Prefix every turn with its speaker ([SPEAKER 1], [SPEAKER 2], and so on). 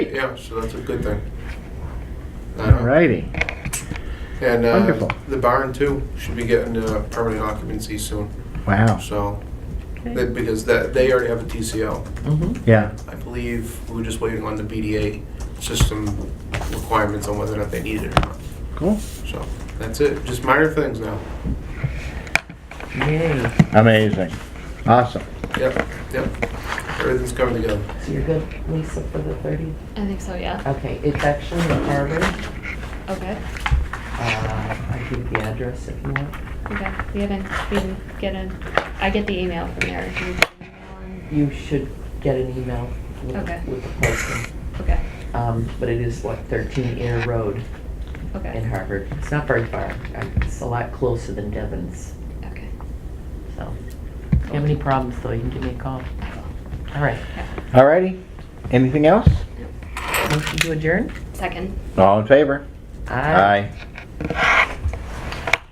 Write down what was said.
[SPEAKER 1] Yeah, so that's a good thing. Uh,
[SPEAKER 2] All righty.
[SPEAKER 1] And uh,
[SPEAKER 2] Wonderful.
[SPEAKER 1] the barn too should be getting uh, permanent occupancy soon.
[SPEAKER 2] Wow.
[SPEAKER 1] So that- because that they already have a TCO,
[SPEAKER 3] Mhm.
[SPEAKER 2] Yeah.
[SPEAKER 1] I believe we were just waiting on the BDA system requirements on whether or not they need it or not.
[SPEAKER 2] Cool.
[SPEAKER 1] So that's it. Just minor things now.
[SPEAKER 3] Yay.
[SPEAKER 2] Amazing. Awesome.
[SPEAKER 1] Yep, yep. Everything's coming together.
[SPEAKER 3] So you're good, Lisa, for the 30th?
[SPEAKER 4] I think so, yeah.
[SPEAKER 3] Okay, it's actually in Harvard.
[SPEAKER 4] Okay.
[SPEAKER 3] Uh, I'll give you the address if you want.
[SPEAKER 4] Okay. We haven't, we didn't get a, I get the email from there. Do you get an email on-
[SPEAKER 3] You should get an email with
[SPEAKER 4] Okay.
[SPEAKER 3] with the posting.
[SPEAKER 4] Okay,
[SPEAKER 3] Um, But it is like 13 Air Road in
[SPEAKER 4] okay,
[SPEAKER 3] Harvard. It's not very far. Uh, It's a lot closer than Devon's,
[SPEAKER 4] okay.
[SPEAKER 3] so. If you have any problems, though, you can give me a call.
[SPEAKER 4] I will.
[SPEAKER 3] All right.
[SPEAKER 2] All righty. Anything else?
[SPEAKER 3] Motion to adjourn?
[SPEAKER 4] Second.
[SPEAKER 2] All in favor? Aye.